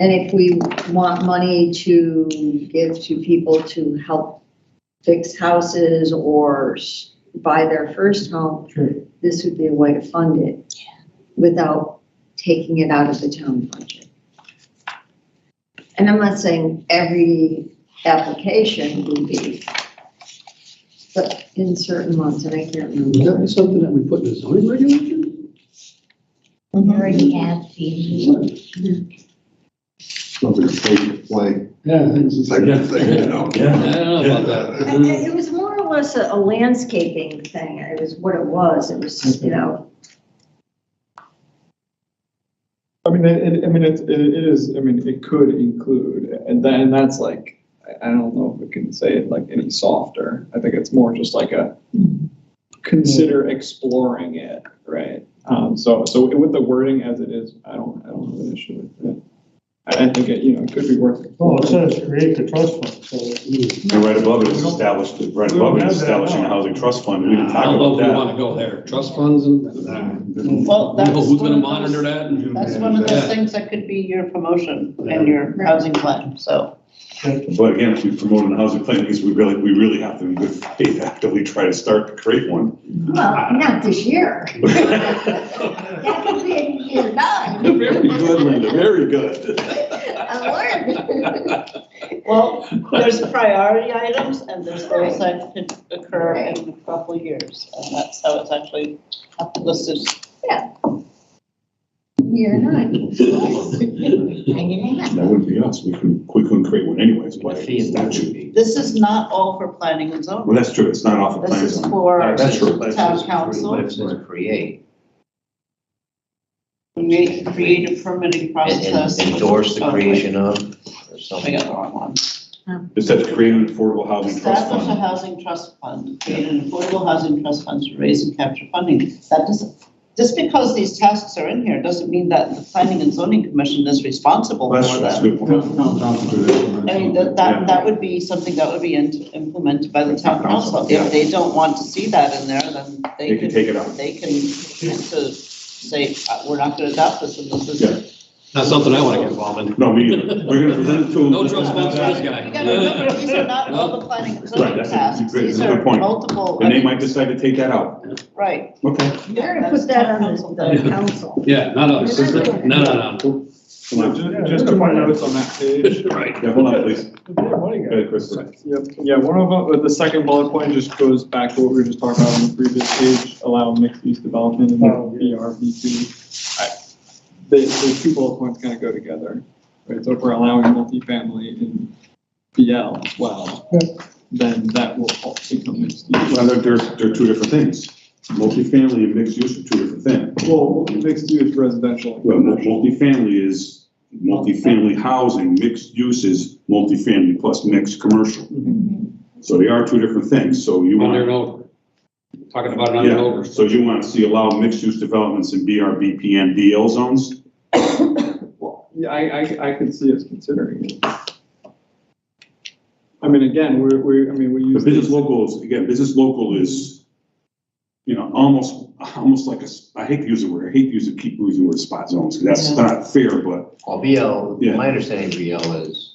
And if we want money to give to people to help fix houses or s- buy their first home, Sure. this would be a way to fund it without taking it out of the town budget. And I'm not saying every application would be, but in certain months, and I can't Would that remember. be something that we put in the zoning regulation? We already have the, Something to take and play, Yeah. it's like a thing, you know? I don't know about that. I- I- It was more or less a a landscaping thing, it was what it was, it was, you know, I mean, it, it- I mean, it's- it, it is, I mean, it could include, and then, and that's like, I- I don't know if we can say it like any softer. I think it's more just like a, consider exploring it, right? Um, so, so with the wording as it is, I don't, I don't have an issue with it. I, I think it, you know, it could be worth. Well, it exploring. says create the trust fund, so And right above it is established, right above it is establishing a housing trust fund. We didn't I talk don't know about if we that. want to go there. Trust funds and, Nah. Well, that's. Who- who's one going to of monitor those- that? and- That's one of Yeah. those things that could be your promotion and your housing plan, so. But again, if we promote a housing plan, it means we really, we really have to in good faith actively try to start to create one. well, not this year. Very That could be in year nine. good, Linda, very good. I learned. Well, there's priority items and there's goals that could occur in a couple of years. And that's how it's actually listed. Year nine. hanging out. That wouldn't be us. We couldn't, we couldn't create one anyways by statute. This is not all for planning and Well, zoning. that's true. It's not off the This plan. is for Alright, that's true. That's town true. council, That's right. create, create, create a permitting and- process. and endorse the Oh, wait, creation of, or I something. got the wrong one. It says create an affordable housing trust Establish a fund. housing trust fund, create an affordable housing trust fund to raise and capture funding. That doesn't, just because these tasks are in here, doesn't mean that the planning and zoning commission is responsible Well, That's, for true. that's a them. good point. I mean, that, that, that would be something that would be in- implemented by the town council. If they don't want to see that in there, then They they can can, take it out. they can, to say, uh, we're not gonna adopt this and this Yeah. is. Not something I want to get involved in. No, we, either. we're gonna present it to them. No trust funds for this You gotta remember, guy. these are not all the planning and Right, zoning that's a- tasks. great, These that's a good are point. multiple, I And they mean, might decide to take that out. right. Okay. We're gonna put that on the the council. Yeah, not us. No, no, no. Come on. Ju- Just to my notes on that page. Right. Yeah, hold on, please. Yeah, what do you Go got? ahead, Chris. Yep, yeah, one of, them- uh, the second bullet point just goes back to what we were just talking about on the previous page, allow mixed-use development in VR, V2. I- The, the two bullet points kind of go together, right, so if we're allowing multifamily in BL as well, then that will all become mixed-use. Well, they're, they're, they're two different things. Multifamily and mixed use are two different things. Well, mixed-use residential. Well, mul- multifamily is multifamily housing, mixed use is multifamily plus mixed commercial. Mm-hmm. So they are two different things, so you Under want. and over. Talking about it under and Yeah, over. so you want to see allow mixed use developments in BRBP and DL zones? Well, Yeah, I, I, I could see us considering it. I mean, again, we're, we're, I mean, we The use. business local is, again, business local is, you know, almost, almost like a, s- I hate to use the word, I hate to use, it- keep using the word spot zones, because that's not fair, but Well, BL, Yeah. my understanding of BL is,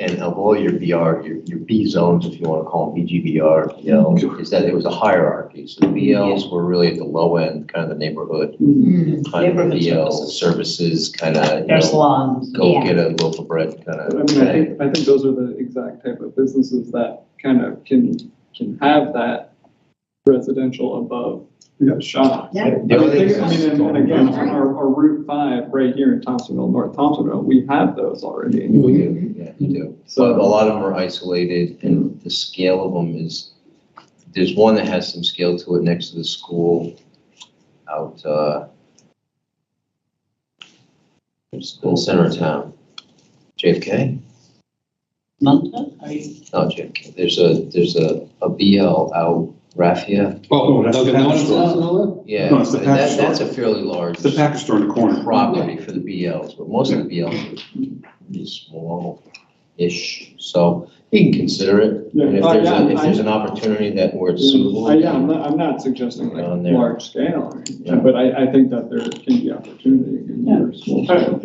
and of all your BR, your, your B zones, if you want to call them BGBR, BL, is that it was a hierarchy. So the BLs were really at the low end, kind of the neighborhood, kind of Neighborhood BL services. services, kind of, you Their know, salons. go Yeah. get a loaf of bread kind I of mean, I thing. think, I think those are the exact type of businesses that kind of can, can have that residential above the shop. Yeah. I The mean, only think- thing I mean, is- and and again, our, our Route five right here in Thompsonville, North Thompsonville, we have those already. You do, yeah, you do. But a So, lot of them are isolated and the scale of them is, there's one that has some scale to it next to the school out, uh, it's in center of town. JFK? Manta, are you? No, JFK. There's a, there's a, a BL out Raffia. Oh, No, that's Dunkin' the Donuts package does and all Yeah, No, it's the that, package that's a fairly large it's the package store in the corner. property for the BLs, but most of the BLs are pretty small-ish. So You can consider it, and if Yeah. there's, Uh, a- yeah, if there's an I- opportunity that where it's suitable. I, uh, yeah, I'm not, I'm not suggesting like On there. large scale, or anything, Yeah. but I, I think that there can be opportunity in Yeah. your small.